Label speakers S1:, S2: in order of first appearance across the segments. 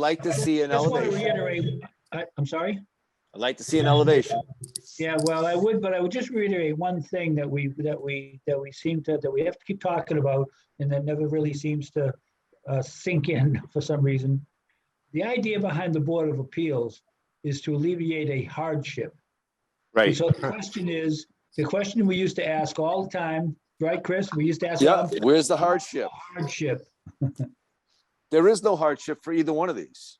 S1: Like to see an
S2: Just want to
S1: elevation.
S2: reiterate, I- I'm sorry?
S1: I'd like to see an elevation.
S2: Yeah, well, I would, but I would just reiterate one thing that we, that we, that we seem to, that we have to keep talking about and that never really seems to uh, sink in for some reason. The idea behind the Board of Appeals is to alleviate a hardship. And So the question is, the question we used to ask all the time, right, Chris? We used to ask.
S1: Yeah,
S2: all the
S1: where's the hardship?
S2: Hardship.
S1: There is no hardship for either one of these.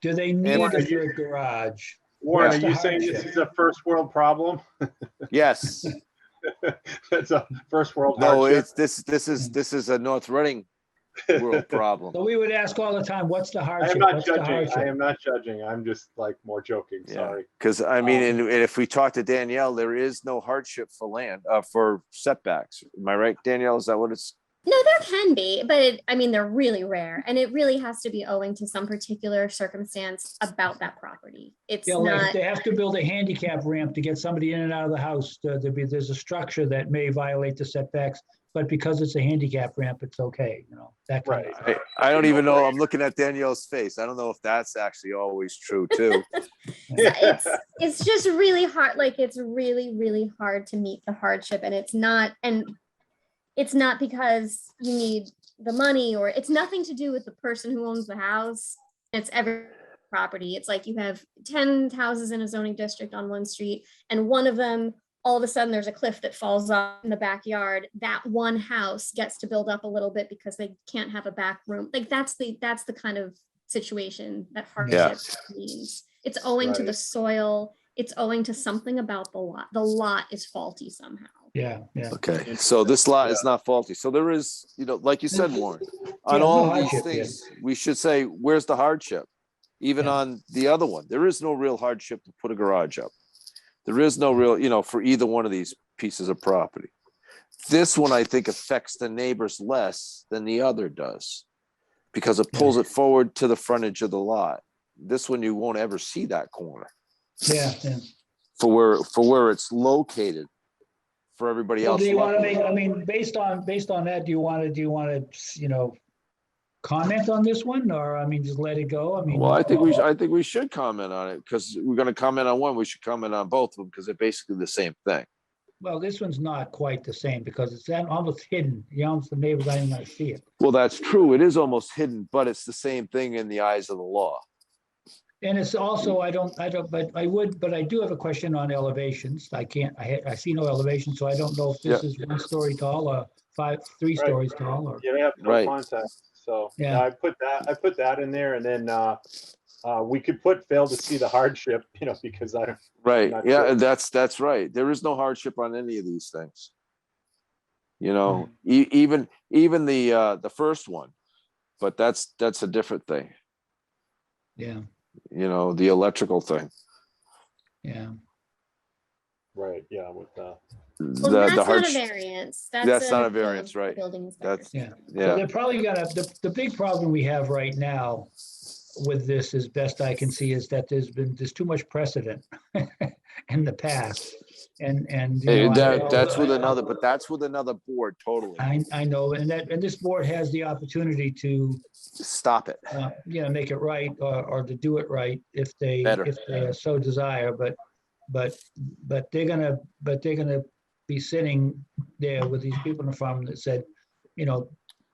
S2: Do they need
S3: Warren,
S2: a
S3: are you-
S2: third garage?
S3: Warren,
S2: That's
S3: are you
S2: the
S3: saying this is a first world problem?
S1: Yes.
S3: That's a first world
S1: No,
S3: hardship.
S1: it's, this, this is, this is a North Reading world
S2: So
S1: problem.
S2: we would ask all the time, what's the
S3: I
S2: hardship?
S3: am not
S2: What's the
S3: judging.
S2: hardship?"
S3: I am not judging. I'm just like more joking.
S1: Yeah.
S3: Sorry.
S1: Because I mean, and and if we talk to Danielle, there is no hardship for land, uh, for setbacks. Am I right, Danielle? Is that what it's?
S4: No, there can be, but it, I mean, they're really rare and it really has to be owing to some particular circumstance about that property. It's
S2: Yeah, like
S4: not,
S2: they have to build a handicap ramp to get somebody in and out of the house. There- There'd be, there's a structure that may violate the setbacks, but because it's a handicap ramp, it's okay, you know, that kind of.
S1: I, I don't even know. I'm looking at Danielle's face. I don't know if that's actually always true too.
S4: it's, it's just really hard, like it's really, really hard to meet the hardship and it's not, and it's not because you need the money or it's nothing to do with the person who owns the house. It's every property. It's like you have 10 houses in a zoning district on one street and one of them all of a sudden there's a cliff that falls off in the backyard that one house gets to build up a little bit because they can't have a back room like that's the that's the kind of situation that hardship means it's owing to the
S3: Right.
S4: soil it's owing to something about the lot the lot is faulty somehow
S2: Yeah, yeah.
S1: Okay, so this lot is not faulty. So there is, you know, like you said, Warren, on
S2: no
S1: all these
S2: hardship, yeah.
S1: things, we should say, where's the hardship? Even
S2: Yeah.
S1: on the other one, there is no real hardship to put a garage up. There is no real, you know, for either one of these pieces of property. This one, I think, affects the neighbors less than the other does. Because it pulls it forward to the frontage of the lot. This one, you won't ever see that corner
S2: Yeah, yeah.
S1: for where, for where it's located. For everybody
S2: Well,
S1: else.
S2: Do you want to
S1: luckily.
S2: make, I mean, based on, based on that, do you want to, do you want to, you know, comment on this one or, I mean, just let it go? I mean.
S1: Well, I think we, sh- I think we should comment on it because we're gonna comment on one, we should comment on both of them because they're basically the same thing.
S2: Well, this one's not quite the same because it's almost hidden. You know, the neighbors aren't even going to see it.
S1: Well, that's true. It is almost hidden, but it's the same thing in the eyes of the law.
S2: And it's also, I don't, I don't, but I would, but I do have a question on elevations. I can't, I, ha- I see no elevation, so I don't know if this is one story tall or five, three
S3: Right.
S2: stories tall or,
S3: You have no
S1: Right.
S3: context. So
S2: Yeah.
S3: yeah, I put that, I put that in there and then, uh, uh, we could put fail to see the hardship, you know, because I,
S1: Right,
S3: Not
S1: yeah,
S3: true.
S1: that's, that's right. There is no hardship on any of these things. You know, e- even, even the, uh, the first one, but that's, that's a different thing,
S2: yeah,
S1: you know, the electrical thing.
S2: yeah.
S3: right, yeah, with, uh,
S4: well,
S1: The,
S4: that's
S1: the
S4: not a
S1: hardship,
S4: variance
S1: That's
S4: that's
S1: not a
S4: appeal
S1: variance,
S4: to the
S1: right.
S4: building inspector.
S1: That's-
S2: Yeah. So
S1: yeah,
S2: They're probably gonna, the, the big problem we have right now with this, as best I can see, is that there's been, there's too much precedent in the past. And, and. you
S1: Eh,
S2: know, I
S1: that,
S2: know-
S1: that's with
S2: I-
S1: another, but that's with another board, totally.
S2: I, I know, and that, and this board has the opportunity to
S1: Stop it.
S2: uh, you know, make it right or, or to do it right if they,
S1: Better.
S2: if they so desire, but, but, but they're gonna, but they're gonna be sitting there with these people in the farm that said, you know,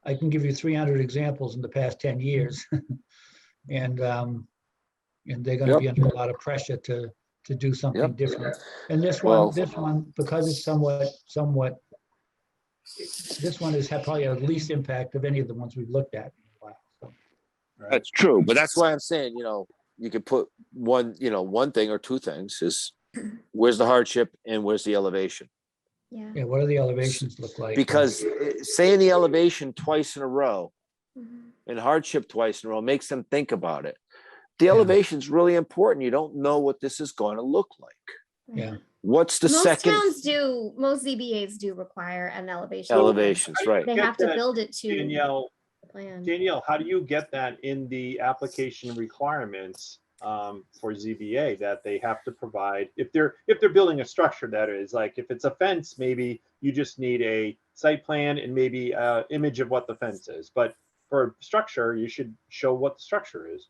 S2: I can give you three hundred examples in the past ten years. And, um, and they're gonna be under a lot of pressure to, to do something
S1: Yep.
S2: different. And this
S1: Well-
S2: one, this one, because it's somewhat, somewhat, this one is probably the least impact of any of the ones we've looked at. in a while. so.
S3: right,
S1: That's true, but that's why I'm saying, you know, you could put one, you know, one thing or two things is where's the hardship and where's the elevation?
S4: yeah
S2: Yeah, what do the elevations look like?
S1: Because eh, saying the elevation twice in a row
S4: Mhm.
S1: and hardship twice in a row makes them think about it. The
S2: Yeah.
S1: elevation's really important. You don't know what this is going to look like.
S4: Right.
S2: Yeah.
S1: What's the
S4: most
S1: second
S4: towns do most zbas do require an elevation
S1: elevations, right?
S4: they
S3: Get
S4: have to
S3: that,
S4: build it to
S3: Danielle,
S4: the plan
S3: Danielle, how do you get that in the application requirements um, for ZBA that they have to provide? If they're, if they're building a structure that is, like, if it's a fence, uh, maybe you just need a site plan and maybe a image of what the fence is. But for a structure, you should show what the structure is.